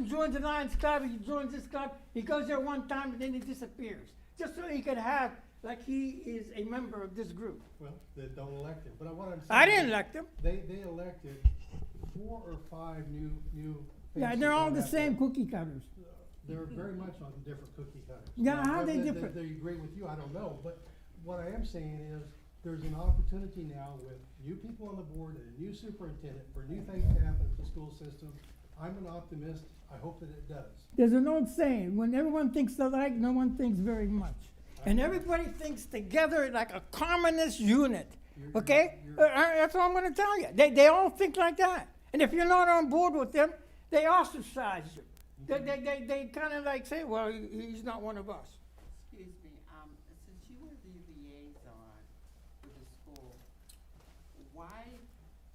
joins the Lions Club, he joins this club, he goes there one time and then he disappears. Just so he can have, like he is a member of this group. Well, they don't elect him, but I want to. I didn't elect him. They, they elected four or five new, new. Yeah, faces they're all on the that same board. cookie cutters. They're very much on different cookie cutters. Yeah, Now, how are they whether different? They agree with you, I don't know, but what I am saying is, there's an opportunity now with new people on the board and a new superintendent for new things to happen at the school system. I'm an optimist, I hope that it does. There's an old saying, when everyone thinks alike, no one thinks very much. And everybody thinks together like a communist unit, You're- okay? you're- Uh, uh, That's what I'm gonna tell you. They, they all think like that. And if you're not on board with them, they ostracize you. They, they, they, they kinda like say, well, he- he's not one of us. Excuse me, um, since you were the liaison with the school, why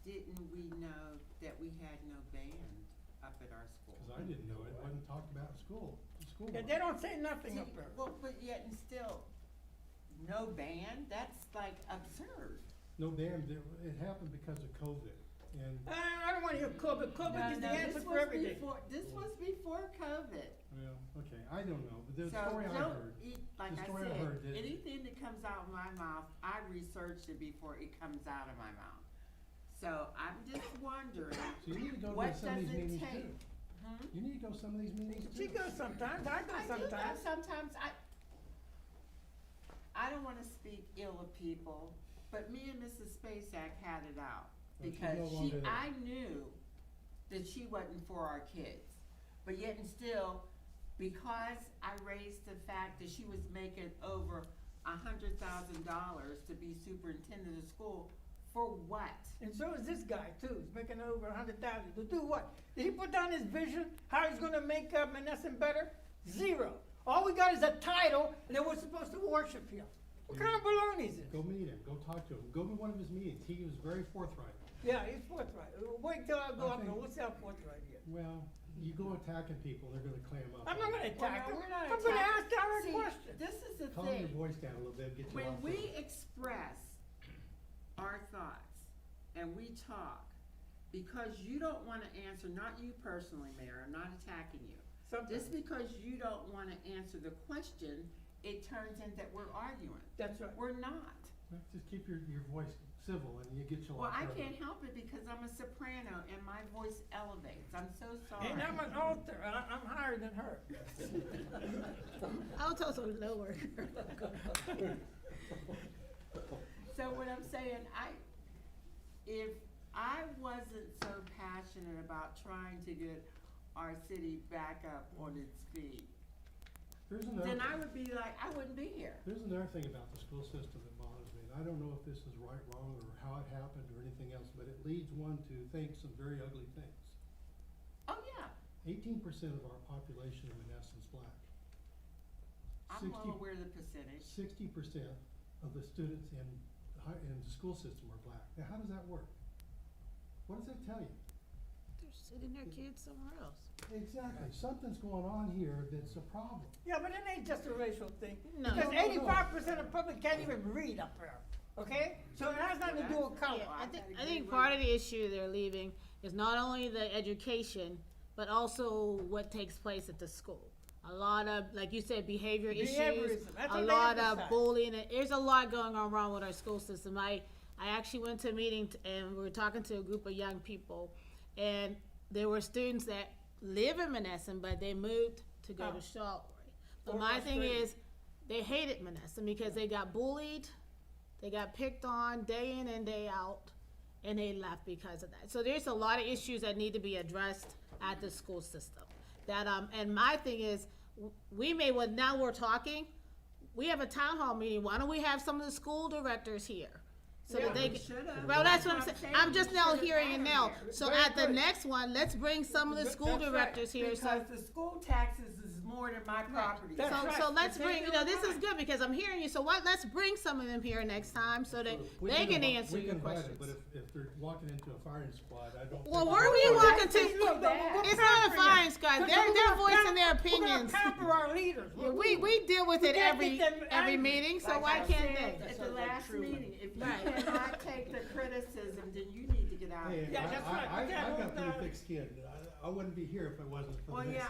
didn't we know that we had no band up at our school? Cause I didn't know it, it wasn't talked about in school, in school. They- They don't say nothing up See, there. Well, but yet and still, no band, that's like absurd. No, damn, there- it happened because of COVID and, I, I don't wanna hear COVID. COVID No, is the no, this answer for was everything. before- This was before COVID. well, okay, I don't know, but the So story I don't heard. eat- Like The I story I heard said, did- anything that comes out of my mouth, I researched it before it comes out of my mouth. So I'm just wondering, So you need to go What to some of these does it meetings take? too. hmm? You need to go to some of these meetings too. She goes sometimes, I go I do go sometimes. sometimes. I, I don't wanna speak ill of people, but me and Mrs. Spacek had it out. Well, she's Because no she, longer there. I knew that she wasn't for our kids. But yet and still, because I raised the fact that she was making over a hundred thousand dollars to be superintendent of school, for what? And so is this guy too. He's making over a hundred thousand. To do what? Did he put down his vision? How he's gonna make uh, Menneson better? Zero. All we got is a title and then we're supposed to worship him. What kind of baloney is Go this? meet him, go talk to him, go to one of his meetings, he was very forthright. Yeah, he's forthright. Uh, Wait till I go up there. Okay. We'll see how forthright he is. Well, you go attacking people, they're gonna clam up. I'm not gonna attack Well, him. no, we're not I'm gonna ask attacking- direct See, questions. This is the thing. Calm your voice down a little bit, get you When off. we express our thoughts and we talk, because you don't wanna answer, not you personally, Mayor, I'm not attacking you. Sometimes. Just because you don't wanna answer the question, it turns in that we're arguing. That's right. We're not. the- Just keep your, your voice civil and you get you off. Well, I your- can't help it because I'm a soprano and my voice elevates. I'm so sorry. And I'm an author. I, I'm higher than her. Altos are lower. So what I'm saying, I, if I wasn't so passionate about trying to get our city back up on its feet, There's then I another, would be like, I wouldn't be here. there's another thing about the school system that bothers me, and I don't know if this is right, wrong, or how it happened or anything else, but it leads one to think some very ugly things. Oh, yeah, Eighteen percent of our population in Menneson's black. I'm well aware of the percentage. Sixty percent of the students in, hi- in the school system are black. Now, how does that work? What does that tell you? They're sending their kids somewhere else. Exactly, something's going on here that's a problem. Yeah, but it ain't just a racial thing. No. Because No, no, no. eighty-five percent of public can't even read up there, okay? So it has nothing to do with color. I think, gotta agree I think with part of the issue they're leaving is not only the education, but also what takes place at the school. A lot of, like you said, behavior issues, Behaviorism, that's a what they lot emphasize. of bullying, and there's a lot going on wrong with our school system. I, I actually went to a meeting t- and we were talking to a group of young people, and there were students that live in Menneson, but they moved to go Oh. to Charlotte. Or But my West thing Virginia. is, they hated Menneson because they got bullied, they got picked on day in and day out, and they left because of that. So there's a lot of issues that need to be addressed at the school system. That um, and my thing is, w- we may well now we're talking. We have a town hall meeting. Why don't we have some of the school directors here? So Yeah, that they We can- should've. well, that's what I'm saying. I'm we just now should've hearing it had 'em now. there. So Very at the good. next one, let's bring some of the Th- school that's right, directors here. So, Because the school taxes is more than my property. That's so, right. so let's They bring, do you know, it this is right. good because I'm hearing you. So what, let's bring some of them here next time so that We they can invi- answer we your can invite 'em, questions. But if, if they're walking into a firing squad, I don't. Well, think- where were you walking that's just so to? bad. We're It's not a pampering fine them. sky. Because They're- we're they're gonna voicing pamp- their We're opinions. gonna pamper our leaders. Yeah, We, we deal with it can't every, get them angry. every meeting, so Like why I can't said, they? At the last meeting, if you Right. cannot take the criticism, then you need to get out of Hey, here. Yeah, I, that's I- right. I, Okay, I've well, got pretty uh, thick skin. I, I wouldn't be here if it wasn't for Well, the yeah,